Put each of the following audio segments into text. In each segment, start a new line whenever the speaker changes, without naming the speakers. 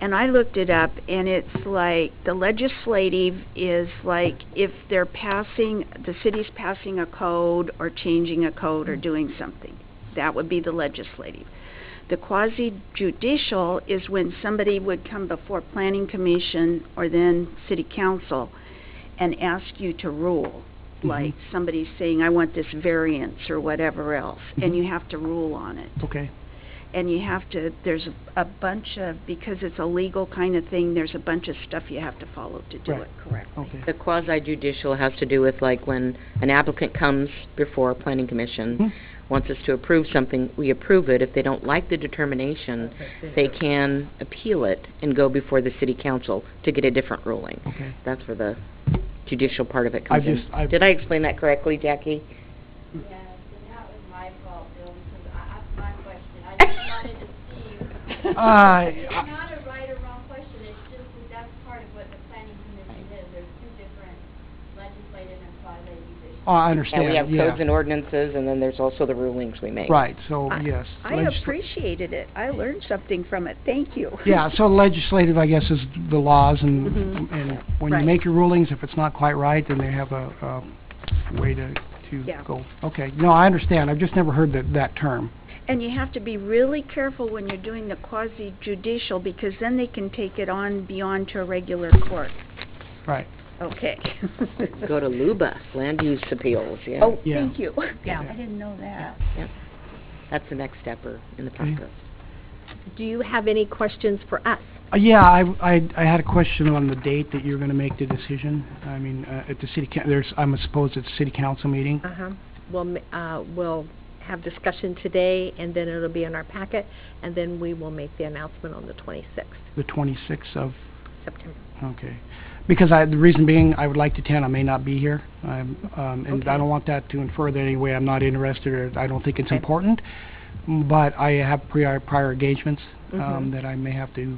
and I looked it up, and it's like, the legislative is like, if they're passing, the city's passing a code or changing a code or doing something. That would be the legislative. The quasi judicial is when somebody would come before planning commission or then city council and ask you to rule.
Mhm.
Like, somebody's saying, I want this variance or whatever else, and
Mhm.
you have to rule on it
Okay,
and you have to, there's a- a bunch of, because it's a legal kind of thing, there's a bunch of stuff you have to follow to do
Right.
it correctly.
okay.
The quasi judicial has to do with like when an applicant comes before planning
Hmm.
commission, wants us to approve something, we approve it. If they don't like the determination, they can appeal it and go before the city council to get a different ruling.
Okay.
That's where the judicial part of it comes
I've
in.
just- I've-
Did I explain that correctly, Jackie?
Yes, and that was my fault, Bill, because I, that's my question. I just wanted to see.
Uh, I-
It's not a right or wrong question, it's just that that's part of what the planning commission is. There's two different legislative and quasi-judicial.
Oh, I
And
understand,
we
yeah.
have codes and ordinances, and then there's also the rulings we make.
Right, so,
I-
yes.
I
legisla-
appreciated it. I learned something from it. Thank you.
Yeah, so legislative, I guess, is the laws and,
Mm-hmm.
Mhm.
and when you
Right.
make your rulings, if it's not quite right, then they have a, a way to, to
Yeah.
go. Okay, no, I understand, I've just never heard that, that term.
And you have to be really careful when you're doing the quasi judicial, because then they can take it on beyond to a regular court.
Right.
Okay.
Go to LUBA, land use appeals, yeah.
Oh,
Yeah.
thank you.
Yeah.
I didn't know that.
That's the next step or in the
Okay.
process.
Do you have any questions for us?
Uh, Yeah, I, I, I had a question on the date that you're gonna make the decision. I mean, uh, at the city, coun- there's, I'm supposed it's city council meeting.
Uh-huh. We'll, ma- uh, we'll have discussion today, and then it'll be in our packet, and then we will make the announcement on the 26th
the 26th of,
September.
okay. Because I, the reason being, I would like to attend, I may not be here, I'm, um, and I
Okay.
don't want that to infer that anyway, I'm not interested, or I don't think it's important, m- but I have prior, prior engagements, um,
Mhm.
that I may have to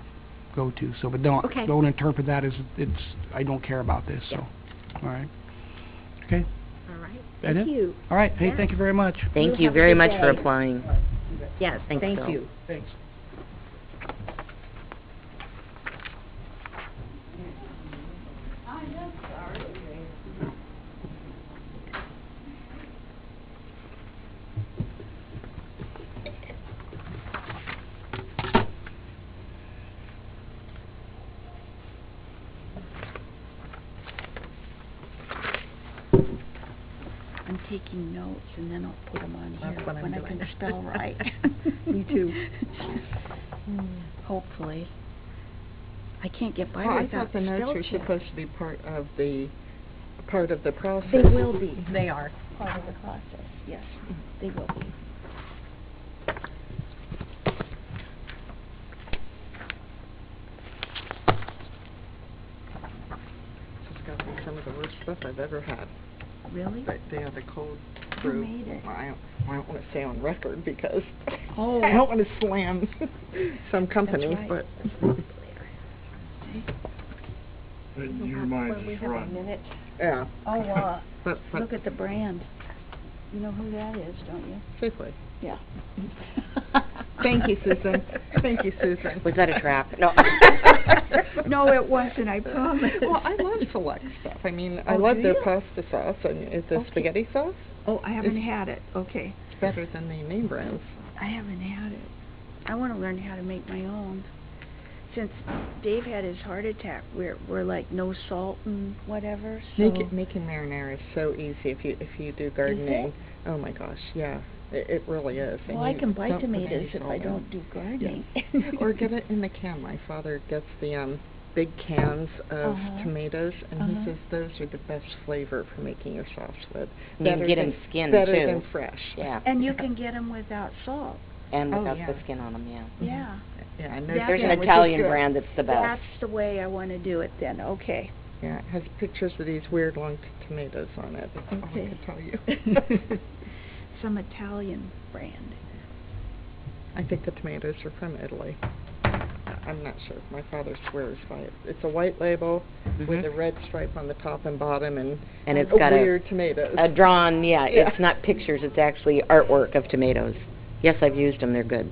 go to, so, but don't,
Okay.
don't interpret that as, it's, I don't care about this, so, all right. Okay,
All right?
That
Thank
it?
you.
all right, hey,
Yeah.
thank you very much.
Thank
You
you
have a
very
good
much for
day.
applying.
Yes,
Thanks,
thank
Bill.
you.
Thanks.
I'm taking notes, and then I'll put them on here.
That's what I'm
When I
doing.
can spell right.
Me too.
Hopefully. I can't get by
Well, I
without
thought the
spell
notes were
check.
supposed to be part of the, part of the process.
They will be
They are.
part of the process, yes, they will be.
This has got to be some of the worst stuff I've ever had.
Really?
But they have the cold
Who
brew.
made it?
Well, I don't, I don't want to say on record because
Oh.
I don't want to slam some company,
right.
but.
Your mind is run.
Yeah.
Oh, uh,
But, but.
look at the brand. You know who that is, don't you?
Safeway.
Yeah.
Thank you, Susan. Thank you, Susan.
Was that a trap? No.
No, it wasn't, I promise.
Well, I love select stuff. I mean, I
Oh,
love
do
their
you?
pasta sauce and it's a
Okay.
spaghetti sauce.
Oh, I haven't had it, okay.
It's better than the name brands.
I haven't had it. I want to learn how to make my own. Since Dave had his heart attack, we're, we're like no salt and whatever, so.
Make it, making marinara is so easy if you if you do gardening. Oh my gosh, yeah, it, it really is. and
Well, I
you
can buy
don't put any
tomatoes if
salt
I
in.
don't do gardening.
or get it in the can. My father gets the um big cans of
Uh-huh.
tomatoes, and
Uh-huh.
he says those are the best flavor for making your sauce with.
You can
Better
get
than-
'em skinned,
better
too.
than fresh.
Yeah,
And you can get them without salt,
and
Oh,
without the
yeah.
skin on them, yeah.
Mm-hmm.
yeah.
Yeah, I know.
That
There's
Yeah,
an
which is
Italian
good.
brand that's the best.
That's the way I want to do it then, okay.
Yeah, it has pictures of these weird long t- tomatoes on it. That's all I
Okay.
can tell you.
Some Italian brand.
I think the tomatoes are from Italy. I- I'm not sure. My father swears by it. It's a white label with a red stripe on the top and bottom and
Mm-hmm. And it's
a
got a-
weird tomatoes.
A drawn, yeah,
Yeah.
it's not pictures, it's actually artwork of tomatoes. Yes, I've used them, they're good.